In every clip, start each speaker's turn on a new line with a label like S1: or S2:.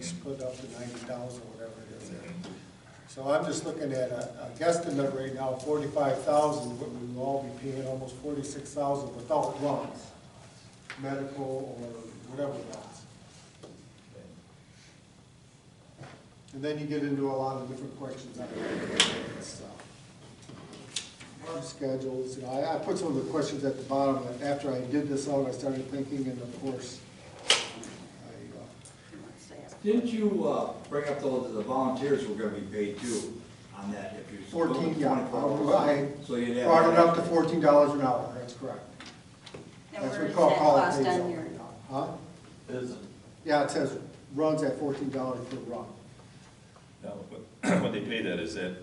S1: split up to ninety thousand, whatever it is there. So I'm just looking at a, a guesstimate right now, forty-five thousand, what we will all be paying, almost forty-six thousand without loans, medical or whatever loans. And then you get into a lot of different questions on this, uh, work schedules, you know, I, I put some of the questions at the bottom, and after I did this out, I started thinking, and of course, I, uh,
S2: Didn't you uh, bring up though that the volunteers were gonna be paid too on that if you. split it
S1: 14, yeah.
S2: 24%?
S1: I
S2: So you'd have.
S1: Brought it up to fourteen dollars an hour, that's correct.
S3: Now,
S1: That's
S3: where
S1: what
S3: is
S1: call
S3: that
S1: call it
S3: cost
S1: pays
S3: on
S1: out
S3: your-
S1: right now. Huh?
S4: Isn't,
S1: Yeah, it says runs at fourteen dollars per run.
S4: now, what, what they pay that, is that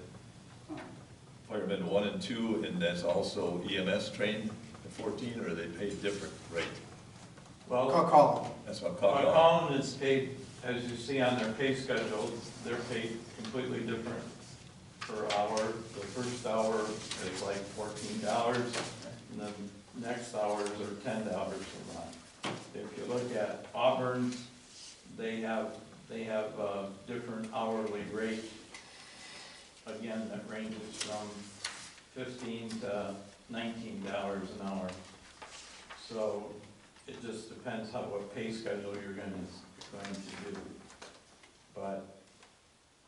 S4: firemen one and two, and that's also EMS trained at fourteen, or they pay different rate?
S1: Call,
S5: Well,
S1: call
S4: That's what I'm calling
S1: Uh,
S4: out.
S5: column is paid, as you see on their pay schedule, they're paid completely different per hour. The first hour is like fourteen dollars, and the next hours are ten dollars a month. If you look at Auburn's, they have, they have a different hourly rate. Again, that ranges from fifteen to nineteen dollars an hour. So it just depends how, what pay schedule you're gonna, going to do. But,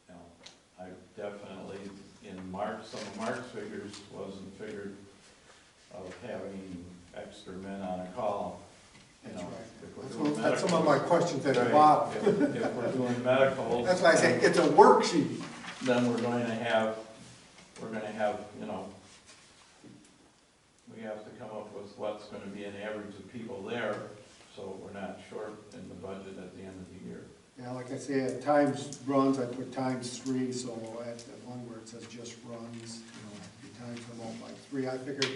S5: you know, I definitely, in Mark, some of Mark's figures wasn't figured of having extra men on a call, you
S1: That's
S5: know.
S1: right.
S5: if we're
S1: That's
S5: doing
S1: one- that's some of
S5: medical.
S1: my questions at the
S5: Right.
S1: bottom.
S5: If if we're doing medical.
S1: That's why I say it's a worksheet.
S5: Then we're going to have, we're gonna have, you know, we have to come up with what's gonna be an average of people there, so we're not short in the budget at the end of the year.
S1: Yeah, like I say, at times runs, I put times three, so at the one where it says just runs, you know, you times them all by three. I figured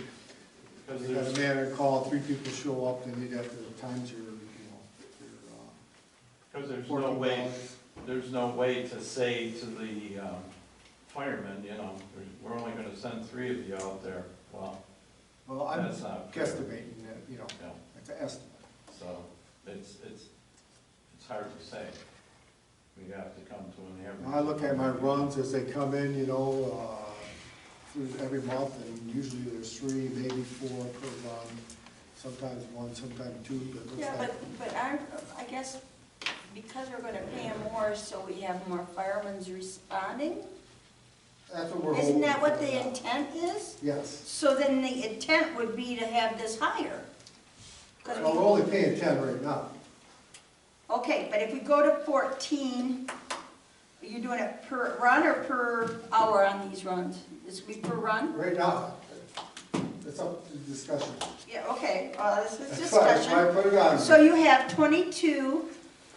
S5: Because
S1: you got a
S5: there's,
S1: man at a call, three people show up, then you'd have to times your, you uh, know,
S5: because there's
S1: your, uh,
S5: no
S1: fourteen
S5: way,
S1: dollars.
S5: there's no way to say to the um, firemen, you know, we're only gonna send three of you out there. Well,
S1: Well, I'm
S5: that's not fair.
S1: guesstimating that, you know,
S5: Yeah,
S1: it's an estimate.
S5: so it's, it's, it's hard to say. We have to come to an average.
S1: When I look at my runs as they come in, you know, uh, through every month, and usually there's three, maybe four per run, sometimes one, sometimes two, but it
S3: Yeah,
S1: looks
S3: but,
S1: like.
S3: but I, I guess because we're gonna pay them more, so we have more firemen's responding?
S1: That's what we're hoping.
S3: Isn't that what
S1: for.
S3: the intent is?
S1: Yes.
S3: So then the intent would be to have this higher. 'Cause we-
S1: Well, we're only paying ten right now.
S3: Okay, but if we go to fourteen, are you doing it per run or per hour on these runs? This would be per run?
S1: Right now, it's up to discussion.
S3: Yeah, okay, uh, this is
S1: That's why- that's
S3: discussion.
S1: why I put it on.
S3: So you have twenty-two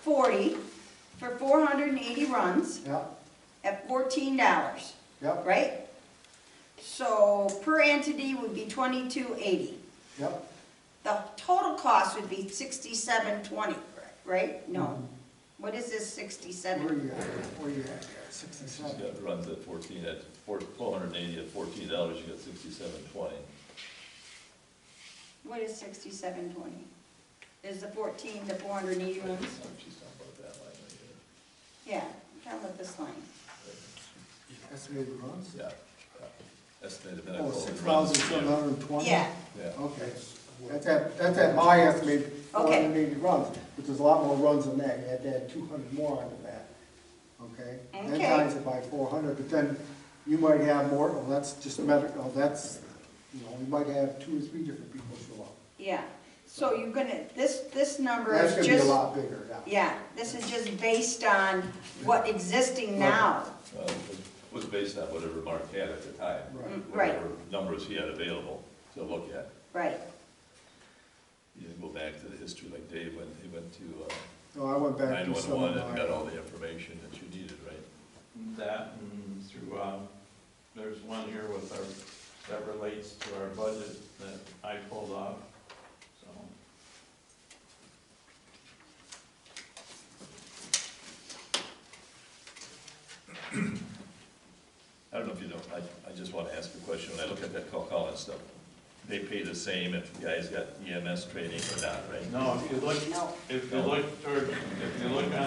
S3: forty for four hundred and eighty runs
S1: Yeah,
S3: at fourteen dollars,
S1: yep,
S3: right? So per entity would be twenty-two eighty.
S1: yep.
S3: The total cost would be sixty-seven twenty, right?
S1: Mm-hmm.
S3: No. What is this
S1: Where
S3: sixty-seven?
S1: you at? Where you at?
S4: She's
S1: Sixty-seven.
S4: got runs at fourteen, at four, twelve hundred and eighty, at fourteen dollars, you got sixty-seven twenty.
S1: E
S3: What is sixty-seven twenty? Is the fourteen the four hundred and eighty runs?
S4: She's talking about that line right
S3: Yeah, I'm talking about this line.
S1: Estimated runs?
S4: there. Yeah, yeah. Estimated medical.
S1: Oh, six
S4: runs,
S1: thousand seven
S4: yeah.
S1: hundred and twenty?
S3: Yeah,
S4: Yeah.
S1: Okay, that's at, that's at my estimate, four
S3: Okay.
S1: hundred and eighty runs, which is a lot more runs than that, you had to add two hundred more onto that, okay? Then
S3: Okay.
S1: times it by four hundred, but then you might have more, oh, that's just medical, that's, you know, you might have two or three different people show up.
S3: yeah. So you're gonna, this, this number
S1: That's
S3: is
S1: gonna
S3: just.
S1: be a lot bigger now.
S3: Yeah, this is just based on what existing now.
S4: Uh, it Was based on whatever Mark had at the time.
S1: Right.
S3: Mm, Right,
S4: Whatever Numbers he had available to look at.
S3: right.
S4: You can go back to the history like Dave, when he went to uh,
S1: So I went back to some of
S4: 911 and got
S1: my,
S4: all the information that you needed, right?
S5: That and through, um, there's one here with our, that relates to our budget that I pulled off, so.
S4: I don't know if you don't, I, I just want to ask a question, when I look at that call and stuff, they pay the same if the guy's got EMS E training or not, right?
S5: No, if you look,
S3: No.
S5: if you look toward, if you look on